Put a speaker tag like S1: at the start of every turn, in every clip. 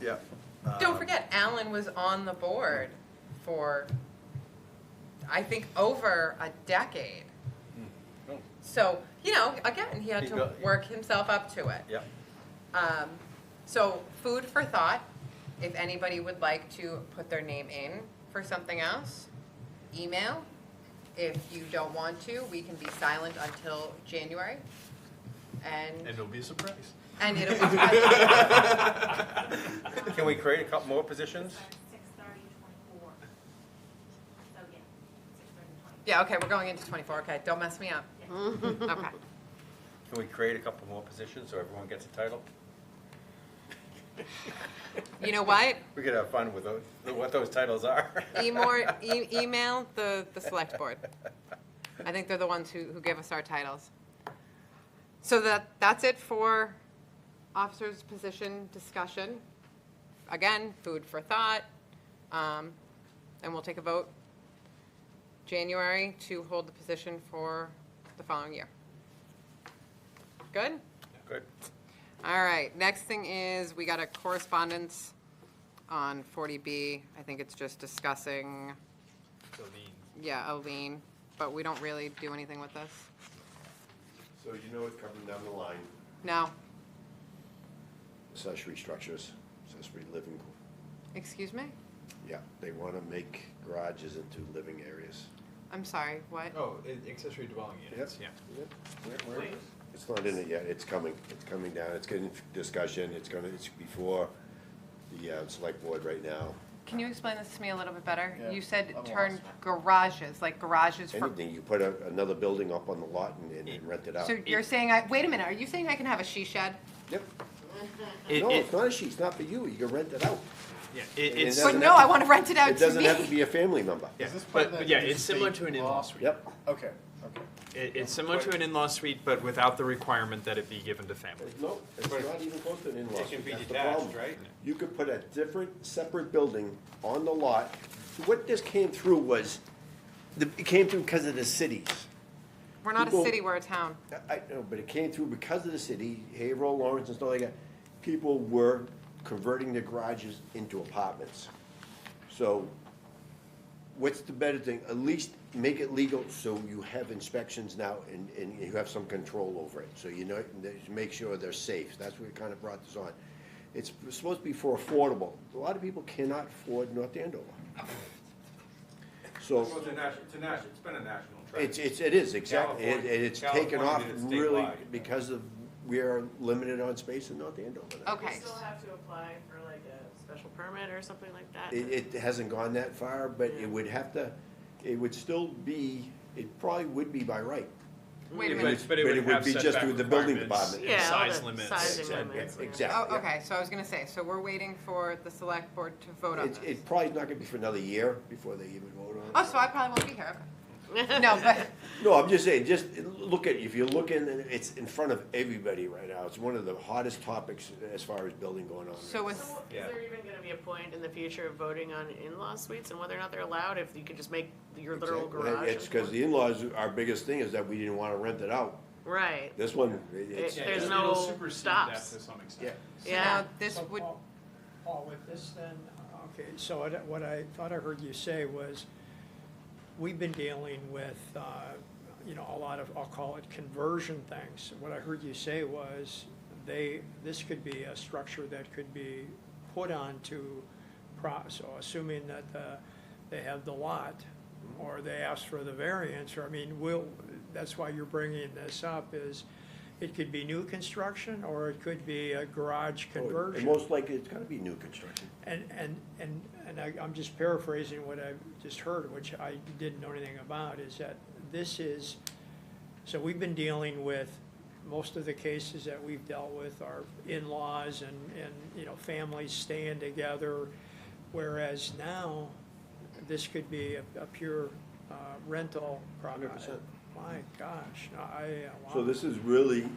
S1: yeah.
S2: Don't
S1: Uh,
S2: forget, Alan was on the board for, I think, over a decade.
S3: Hmm.
S4: Oh.
S2: So, you know, again, he had
S1: He
S2: to
S1: got-
S2: work himself up to it.
S1: Yeah,
S2: Um, so food for thought, if anybody would like to put their name in for something else, email. If you don't want to, we can be silent until January.
S3: And
S2: And,
S3: it'll be a surprise.
S2: and it'll be,
S1: can we create a couple more positions?
S5: Six thirty to twenty-four. So, yeah, six thirty to twenty-four.
S2: yeah, okay, we're going into twenty-four, okay, don't mess me up. Okay.
S1: Can we create a couple more positions so everyone gets a title?
S2: You know what?
S1: We could have fun with those, what those titles are.
S2: Emor, e- email the, the select board. I think they're the ones who, who give us our titles. So that, that's it for officers' position discussion. Again, food for thought. Um, and we'll take a vote January to hold the position for the following year. Good?
S1: Good.
S2: All right, next thing is, we got a correspondence on 40B. I think it's just discussing,
S3: So the-
S2: yeah, a lien, but we don't really do anything with this.
S6: So you know it's coming down the line.
S2: No,
S6: Accessory structures, accessory living,
S2: excuse me?
S6: yeah, they wanna make garages into living areas.
S2: I'm sorry, what?
S3: Oh, i- accessory dwelling units, yeah.
S6: It's not in it yet, it's coming, it's coming down, it's getting discussion, it's gonna, it's before the, uh, select board right now.
S2: Can you explain this to me a little bit better?
S7: Yeah,
S2: You said
S7: I'm
S2: turn
S7: lost.
S2: garages, like garages for,
S6: Anything, you put a, another building up on the lot and, and- and rent it out.
S2: so you're saying, I, wait a minute, are you saying I can have a she shed?
S6: Yep,
S3: It-
S6: no,
S3: it-
S6: it's not a sheet, it's not for you, you can rent it out.
S3: yeah, it-
S6: it
S3: It's,
S2: But
S6: doesn't
S2: no,
S6: have
S2: I
S6: to-
S2: want to rent it out
S6: It
S2: Oh, to
S6: doesn't
S2: me.
S6: have to be a family member,
S3: yeah,
S7: this part
S3: but,
S7: that
S3: but yeah,
S7: is
S3: it's similar
S7: state
S3: to an
S7: law?
S3: in-law suite.
S6: yep.
S7: Okay, okay.
S3: It, it's similar to an in-law suite, but without the requirement that it be given to family.
S6: No, it's not even close to an in-law
S4: It can
S6: suite,
S4: be
S6: that's the
S4: detached,
S6: problem.
S4: right?
S6: You could put a different, separate building on the lot. What this came through was, the- it came through because of the cities.
S2: We're not a
S6: people-
S2: city, we're a town.
S6: I I know, but it came through because of the city, Haverhill, Lawrence, and stuff like that. People were converting their garages into apartments. So what's the better thing? At least make it legal so you have inspections now and, and you have some control over it. So you know, that you make sure they're safe. That's what kind of brought this on. It's supposed to be for affordable. A lot of people cannot afford North Andover. So.
S8: Well, it's a national, it's a national, it's been a national trend.
S6: It's, it's, it is, exactly, and
S8: California-
S6: and it's taken
S8: California
S6: off
S8: did it
S6: really
S8: statewide.
S6: because of, we are limited on space in North Andover. now.
S2: Okay.
S9: You still have to apply for like a special permit or something like that?
S6: It, it hasn't gone that far, but it would have to, it would still be, it probably would be by right.
S2: Wait a
S6: But
S2: minute.
S6: it's- but it would
S3: have
S6: be just
S3: setback
S6: through the building
S3: requirements
S6: department.
S3: and
S9: Yeah, all
S3: Size
S9: the
S3: limits.
S9: sizing
S6: Yeah,
S9: limits, yeah.
S6: Exactly,
S2: Oh,
S6: yeah.
S2: okay, so I was going to say, so we're waiting for the select board to vote on
S6: It's,
S2: this.
S6: it probably is not gonna be for another year before they even vote on it.
S2: Oh, so I probably won't be here, okay. No, but,
S6: No, I'm just saying, just look at, if you're looking, it's in front of everybody right now. It's one of the hottest topics as far as building going on.
S2: so
S9: So
S2: it's,
S9: is there even gonna be a point in the future of voting on in-law suites and whether or not they're allowed, if you could just make your literal
S6: Exactly.
S9: garage?
S6: It's
S9: into
S6: because the in-laws, our biggest thing is that we didn't wanna rent it out.
S9: one? Right,
S6: This one, it's,
S9: There's
S3: it'll-
S9: no
S3: it'll supersede that
S9: stops.
S3: To some
S6: yeah.
S3: extent.
S2: so
S9: yeah.
S2: now this
S7: So,
S2: would,
S7: Paul- Paul, with this then, uh, okay, so I don't- what I thought I heard you say was, we've been dealing with, uh, you know, a lot of, I'll call it conversion things. What I heard you say was, they, this could be a structure that could be put onto, pro- so assuming that uh, they have the lot, or they ask for the variance, or, I mean, will, that's why you're bringing this up, is it could be new construction, or it could be a garage conversion.
S6: And most likely, it's gonna be new construction.
S7: And, and, and, and I, I'm just paraphrasing what I just heard, which I didn't know anything about, is that this is, so we've been dealing with, most of the cases that we've dealt with are in-laws and, and, you know, families staying together. Whereas now, this could be a, a pure, uh, rental property.
S6: 100%.
S7: My gosh, I, uh, wow.
S6: So this is really,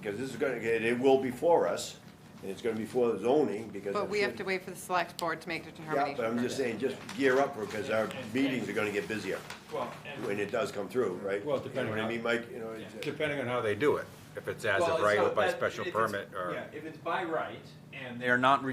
S6: because this is gonna, get it will be for us, and it's gonna be for the zoning, because.
S2: but
S6: I'm
S2: we
S6: sure-
S2: have to wait for the select board to make the determination.
S6: Yeah, but I'm just saying, just gear up, because our meetings are gonna get busier
S3: Well, and-
S6: when it does come through, right?
S8: Well, depending
S6: You know what I
S8: on-
S6: mean, Mike, you know, it's-
S8: Depending on how they do it, if it's as
S3: Well,
S8: of
S3: it's
S8: right or
S3: not
S8: by
S3: that-
S8: special
S3: if it's-
S8: permit or.
S3: Yeah, if it's by right and they're not